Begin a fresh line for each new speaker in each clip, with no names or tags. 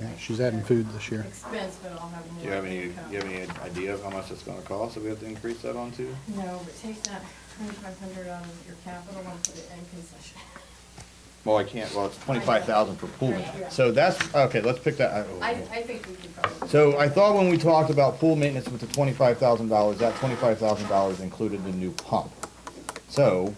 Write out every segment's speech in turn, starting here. Yeah, she's adding food this year.
Expense, but I'll have more.
Do you have any,
income.
do you have any idea of how much it's gonna cost if we have to increase that on to?
No, but take that twenty-five hundred out of your capital and put it in concession.
Well, I can't, well, it's twenty-five thousand for pooling.
Right, yeah.
So that's, okay, let's pick that. oh,
I,
oh.
I think we could probably.
So I thought when we talked about pool maintenance with the twenty-five thousand dollars, that twenty-five thousand dollars included the new pump. So,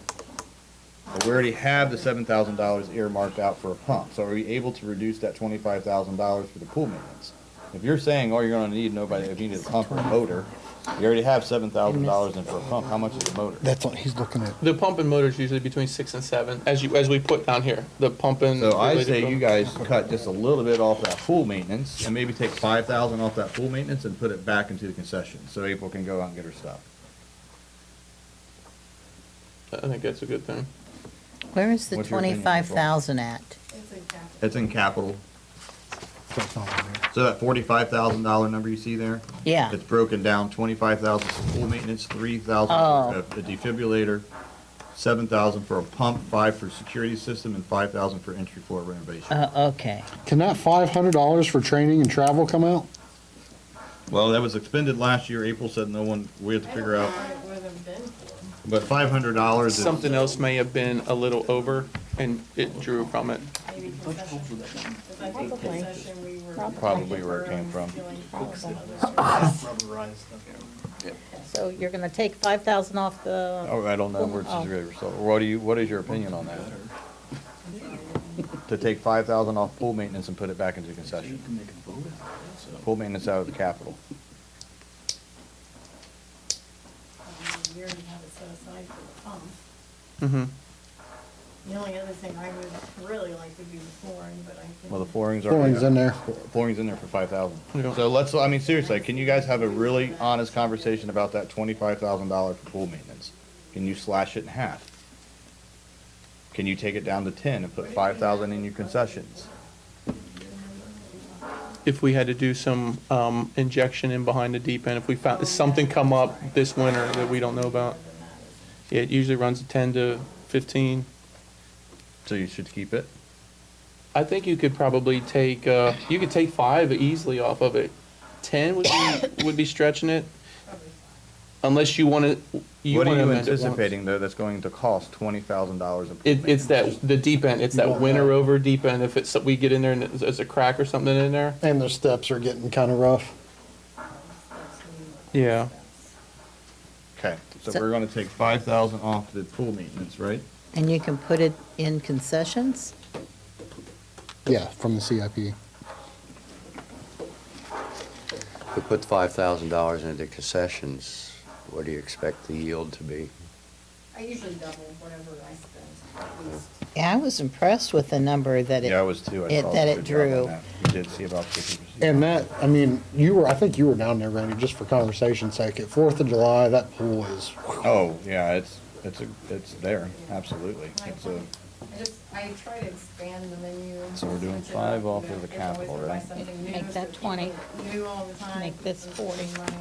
but we already have the seven thousand dollars earmarked out for a pump, so are we able to reduce that twenty-five thousand dollars for the pool maintenance? If you're saying, oh, you're gonna need nobody, if you need a pump or a motor, you already have seven thousand dollars in for a pump, how much is the motor?
That's what he's looking at.
The pump and motor is usually between six and seven, as you, as we put down here, the pump and.
So I
related
say you
equipment.
guys cut just a little bit off that pool maintenance, and maybe take five thousand off that pool maintenance and put it back into the concession, so April can go out and get her stuff.
I think that's a good thing.
Where is the
What's your opinion,
twenty-five
April?
thousand at?
It's in capital.
It's in capital.
That's not on there.
So that forty-five thousand dollar number you see there?
Yeah.
It's broken down, twenty-five thousand for pool maintenance, three thousand
Oh.
for a- a defibrillator, seven thousand for a pump, five for security system, and five thousand for entry floor renovation.
Uh, okay.
Can that five hundred dollars for training and travel come out?
Well, that was expended last year, April said no one, we had to figure out,
I don't know what it would have been for.
but five hundred dollars is.
Something else may have been a little over and it drew from it.
Maybe concession, because I think concession, we were.
Probably where it came from.
Feeling for some other service.
So you're gonna take five thousand off the,
Oh, I don't know where it's
Oh.
really, so what do you, what is your opinion on that? To take five thousand off pool maintenance and put it back into concession? Pool maintenance out of the capital.
Um, We already have it set aside for the pump.
Mm-hmm.
The only other thing I would really like to do is flooring, but I can.
Well, the flooring's already.
Flooring's in there.
Flooring's in there for five thousand.
Yeah.
So let's, I mean, seriously, can you guys have a really honest conversation about that twenty-five thousand dollar for pool maintenance? Can you slash it in half? Can you take it down to ten and put five thousand in your concessions?
If we had to do some, um, injection in behind the deep end, if we found, if something come up this winter that we don't know about. yeah, It usually runs ten to fifteen.
So you should keep it?
I think you could probably take, uh, you could take five easily off of it. Ten would be, would be stretching it. Unless you wanna, you
What
wanna
are you
amend it once.
anticipating though that's going to cost twenty thousand dollars in pool
It, it's
maintenance?
that, the deep end, it's that winter over deep end, if it's, we get in there and there's- there's a crack or something in there.
And the steps are getting kind of rough.
Yeah.
Okay, so we're gonna take five thousand off the pool maintenance, right?
and you can put it in concessions?
Yeah, from the CIP.
If we put five thousand dollars into concessions, what do you expect the yield to be?
I usually double whatever I spend, at least.
Yeah, I was impressed with the number that it.
Yeah, I was too. I
it-
saw
that
the
it
good job on
drew.
that. You did see about fifty percent.
And that, I mean, you were, I think you were down there, Randy, just for conversation's sake. At Fourth of July, that pool is,
Oh, yeah, it's, it's, a it's there, absolutely.
I
It's a,
just, I try to expand the menu.
So we're doing
switch it
five
up,
off
you know,
of the
there's always
capital,
gonna buy
right?
something new
Make
so
that
people
20.
New all the time.
Make this
keeps them
40.
saving money.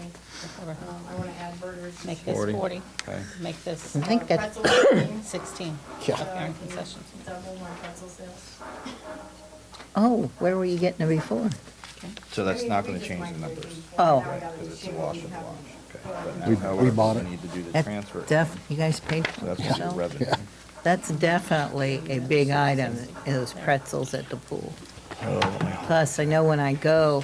Um, I wanna add burgers. Uh,
Make this
Forty.
40,
okay.
make this
I think that-
Pretzel things,
16.
so
yeah.
I
Aaron
can
concessions.
Double my pretzel sales.
Oh, where were you getting it before?
So
I
that's
mean,
not
we
gonna
just
change
microwave
the numbers.
them,
Oh.
now I
Right,
gotta
because it's a
change
wash
them,
and
have them.
wash, okay.
Well, I
But
can
now,
We-
however,
we bought it.
Need to do the
That
transfer.
def, you guys paid
So
for it
That's gonna be
yourself?
revenue.
That's definitely a big item, is pretzels at the pool. Plus, I know when I go,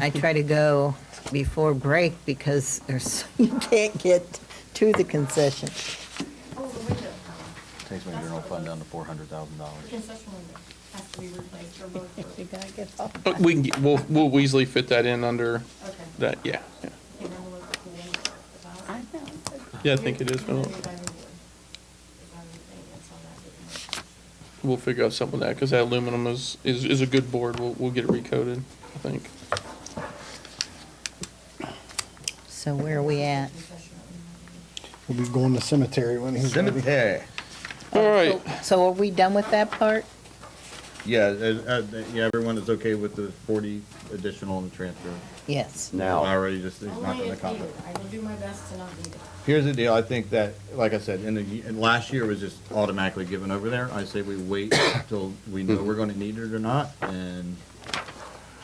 I try to go before break because there's, you can't get to the concession.
Oh, the window,
Takes my general fund down to four hundred thousand dollars.
the concession window has to be replaced or both.
You gotta get off.
But We can, get- we'll, we'll easily fit that in under
Okay.
that, yeah. yeah.
Okay, now we'll look at the window.
I know.
Yeah, I think it is, but we'll- we'll figure out something with that, because that aluminum is, is, is a good board, we'll, we'll get it recoded, I think.
So where are we at?
We'll be going to cemetery when he's ready.
Cemetery.
All right,
So are we done with that part?
Yeah, uh, uh, yeah, everyone is okay with the forty additional in the transfer.
Yes.
Now.
Already just, it's not
Only
gonna
if needed,
come.
I will do my best to not need it.
Here's the deal, I think that, like I said, in the, in last year was just automatically given over there. I say we wait till we know we're gonna need it or not, and